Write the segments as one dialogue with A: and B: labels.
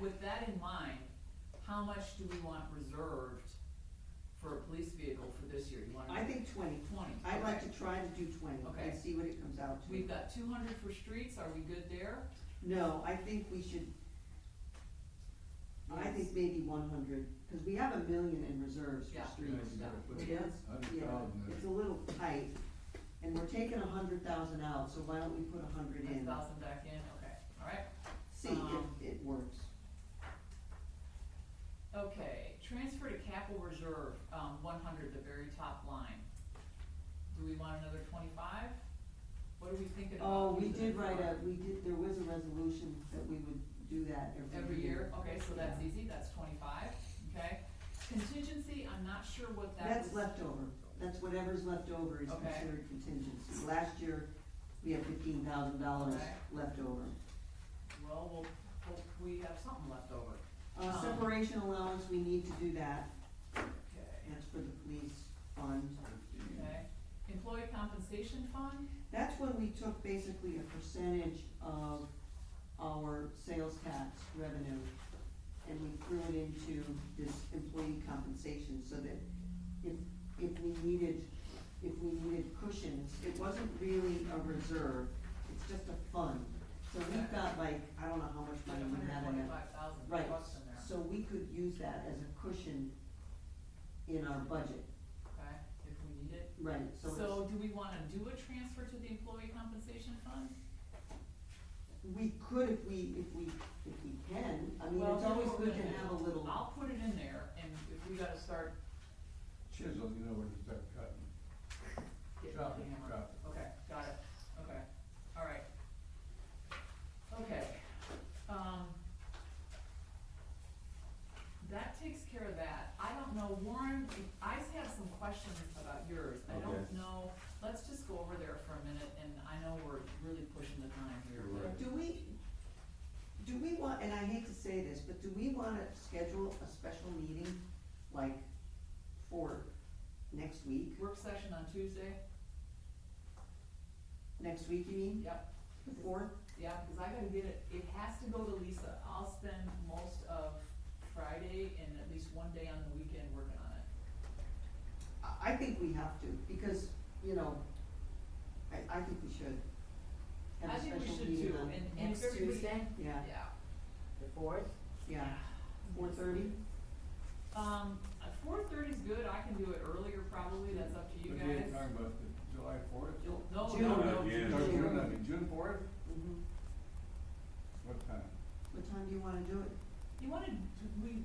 A: with that in mind, how much do we want reserved for a police vehicle for this year? You want
B: I think twenty.
A: Twenty,
B: I'd like
A: okay.
B: to try to do twenty
A: Okay.
B: and see what it comes out to.
A: We've got two hundred for streets, are we good there?
B: No, I think we should, I think maybe one hundred, cause we have a million in reserves
A: Yeah.
B: for streets.
A: Yeah.
B: Yes,
C: Hundred
B: yeah,
C: thousand there.
B: it's a little tight, and we're taking a hundred thousand out, so why don't we put a hundred
A: A
B: in?
A: thousand back in, okay, all right.
B: See
A: um,
B: if it works.
A: Okay, transfer to capital reserve, um, one hundred, the very top line. Do we want another twenty-five? What are we thinking about?
B: Oh, we
A: using it
B: did write
A: for?
B: a, we did, there was a resolution that we would do that
A: Every year, okay, so that's easy, that's twenty-five, okay? Contingency, I'm not sure what that
B: That's
A: was,
B: leftover, that's whatever's left over is
A: Okay.
B: considered contingency. Last year, we had fifteen thousand dollars
A: Okay.
B: left over.
A: well, we'll, hope we have something left over.
B: Uh,
A: Um,
B: separation allowance, we need to do that,
A: Okay,
B: that's for the police fund.
A: okay. Employee compensation fund,
B: That's when we took basically a percentage of our sales tax revenue and we threw it into this employee compensation so that if, if we needed, if we needed cushions, it wasn't really a reserve, it's just a fund. So we've got like, I don't know how much
A: like
B: money
A: a
B: we
A: hundred
B: have in it.
A: twenty-five thousand
B: Mm-hmm. Right,
A: bucks in there,
B: so we could use that as a cushion in our budget,
A: okay, if we need it.
B: right, so it's.
A: So do we wanna do a transfer to the employee compensation fund?
B: We could if we, if we, if we can, I mean,
A: Well,
B: it's
A: here's
B: always
A: what we're
B: good to
A: gonna
B: have a
A: do.
B: little,
A: I'll put it in there, and if we gotta start
C: Chisel, you know where to start cutting.
A: getting the
C: Drop it,
A: hammer.
C: drop
A: Okay, got it, okay, all right. Okay, um. That takes care of that. I don't know, Warren, I have some questions about yours. I don't
D: Okay.
A: know, let's just go over there for a minute, and I know we're really pushing the time here,
D: You're
A: but
D: right.
B: do we, do we want, and I hate to say this, but do we wanna schedule a special meeting, like, for next week?
A: work session on Tuesday,
B: Next week, you mean,
A: yep.
B: the fourth?
A: Yeah, because I gotta get it, it has to go to Lisa, I'll spend most of Friday and at least one day on the weekend working on it.
B: I, I think we have to, because, you know, I, I think we should. have a
A: I think we
B: special
A: should
B: meeting
A: too,
B: on-
A: and, and
E: Next
A: everybody-
E: Tuesday,
B: Yeah,
A: Yeah.
E: the fourth,
B: yeah, four thirty,
A: Um, four thirty's good, I can do it earlier probably, that's up to you
C: But you ain't
A: guys.
C: talking about the July fourth?
A: You'll- No,
B: June.
A: no,
D: Uh,
A: no,
D: yeah.
A: June.
B: June.
C: June, I mean, June fourth?
B: mhm,
C: What time?
B: what time do you wanna do it?
A: You wanna, we,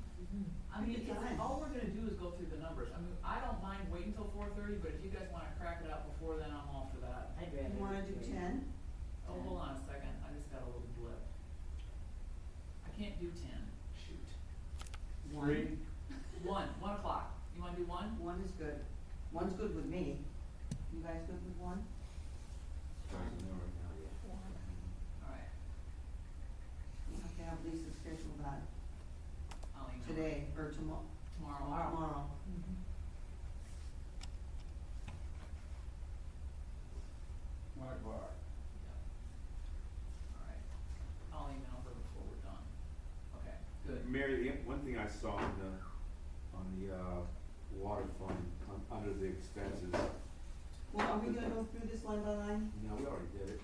A: I
B: Pick
A: mean,
B: a
A: it's,
B: time.
A: all we're gonna do is go through the numbers, I mean, I don't mind waiting till four thirty, but if you guys wanna crack it up before then, I'm all for that.
E: I'd rather.
B: You wanna do ten?
A: Oh, hold on a second, I just got a little blip. I can't do ten, shoot.
B: One.
A: One, one o'clock. You wanna do one?
B: One is good. One's good with me. You guys good with one?
A: Alright,
B: We'll have to have Lisa schedule that
A: I'll email. her
B: today or tomorrow,
A: Tomorrow.
B: tomorrow.
C: One o'clock.
A: Yeah. Alright, I'll email her before we're done. Okay, good.
D: Mary, the one thing I saw on the, on the, uh, water fund, un- under the expenses,
B: Well, are we gonna go through this line by line?
D: no, we already did it.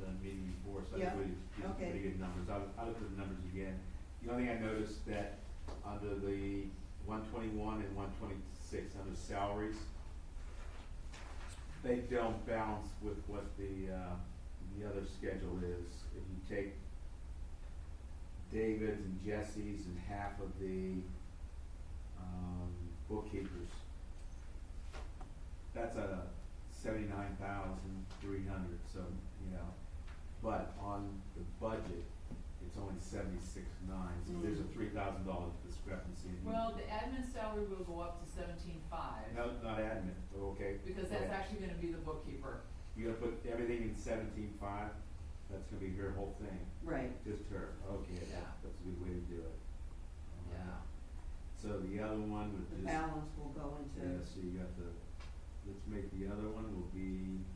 D: The meeting before, so I
B: Yeah,
D: really, did
B: okay.
D: pretty good numbers, I, I looked at the numbers again. The only thing I noticed that under the one twenty-one and one twenty-six, under salaries, they don't balance with what the, uh, the other schedule is. If you take David's and Jesse's and half of the, um, bookkeepers, that's a seventy-nine thousand three hundred, so, you know, but on the budget, it's only seventy-six nine, so there's a
B: Mm.
D: three thousand dollar discrepancy. in-
A: Well, the admin salary will go up to seventeen-five,
D: No, not admin, but okay.
A: because that's
D: okay.
A: actually gonna be the bookkeeper.
D: You're gonna put everything in seventeen five, that's gonna be her whole thing,
B: Right.
D: just her, okay,
A: Yeah.
D: that, that's a good way to do it.
A: Yeah.
D: So the other one would
B: The
D: just,
B: balance will go
D: yeah,
B: into,
D: so you got the, let's make the other one will be